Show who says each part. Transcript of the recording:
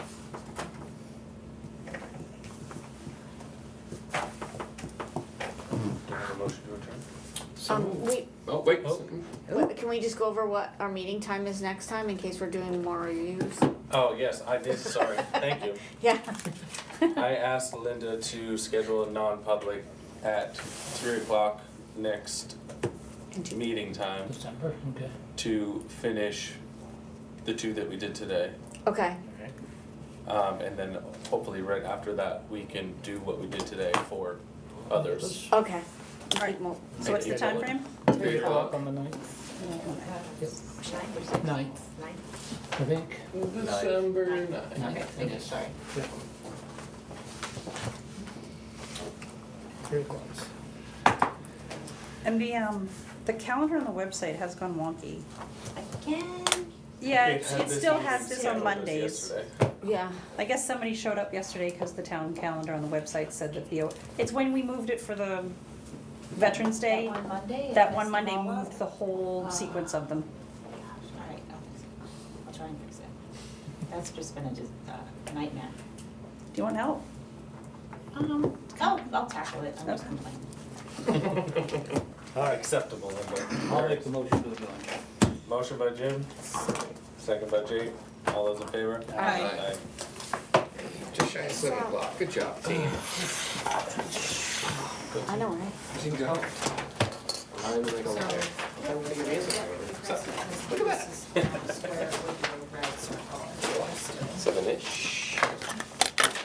Speaker 1: Um, we,
Speaker 2: Oh, wait.
Speaker 3: Oh.
Speaker 1: what- can we just go over what our meeting time is next time in case we're doing more reviews?
Speaker 3: Oh, yes, I did, sorry, thank you.
Speaker 1: Yeah,
Speaker 3: I asked Linda to schedule a non-public at three o'clock next meeting time
Speaker 4: December, okay.
Speaker 3: to finish the two that we did today.
Speaker 1: okay,
Speaker 3: Um, and then hopefully right after that, we can do what we did today for others.
Speaker 1: okay.
Speaker 5: All right,
Speaker 1: Well,
Speaker 5: so what's the
Speaker 3: Thank you.
Speaker 5: timeframe?
Speaker 2: Eight o'clock.
Speaker 4: On the ninth,
Speaker 6: Ninth.
Speaker 4: Ninth. I think,
Speaker 2: December ninth.
Speaker 4: Ninth,
Speaker 6: Okay,
Speaker 4: I
Speaker 6: thank you,
Speaker 4: guess,
Speaker 6: sorry.
Speaker 4: three o'clock.
Speaker 5: And the, um, the calendar on the website has gone wonky.
Speaker 6: Again.
Speaker 5: Yeah,
Speaker 3: It
Speaker 5: it
Speaker 3: had this
Speaker 5: still
Speaker 3: meeting
Speaker 5: has this
Speaker 3: scheduled
Speaker 5: on
Speaker 3: as
Speaker 5: Mondays.
Speaker 3: yesterday.
Speaker 1: Yeah,
Speaker 5: I guess somebody showed up yesterday because the town calendar on the website said that the, it's when we moved it for the Veterans
Speaker 6: That
Speaker 5: Day.
Speaker 6: one Monday. I
Speaker 5: That one
Speaker 6: messed
Speaker 5: Monday
Speaker 6: them all
Speaker 5: moved
Speaker 6: up.
Speaker 5: the whole
Speaker 6: Ah.
Speaker 5: sequence of them.
Speaker 6: Gosh, All right, I'll fix it. I'll try and fix it. That's just been a dis- uh, nightmare.
Speaker 5: Do you want help?
Speaker 6: Um, oh, I'll tackle it, I'm just
Speaker 5: Okay.
Speaker 6: complaining.
Speaker 3: Not acceptable, Linda.
Speaker 4: I'll make the motion for the billing.
Speaker 3: Motion by Jim, second by Jake, all those in favor?
Speaker 2: Aye. Just shy of seven o'clock. Good job, team.
Speaker 1: I know, right?
Speaker 2: Team go. I'm like a liar. I'm gonna give you a second.
Speaker 6: Look at that. Square with your red circle.
Speaker 2: Seven-ish.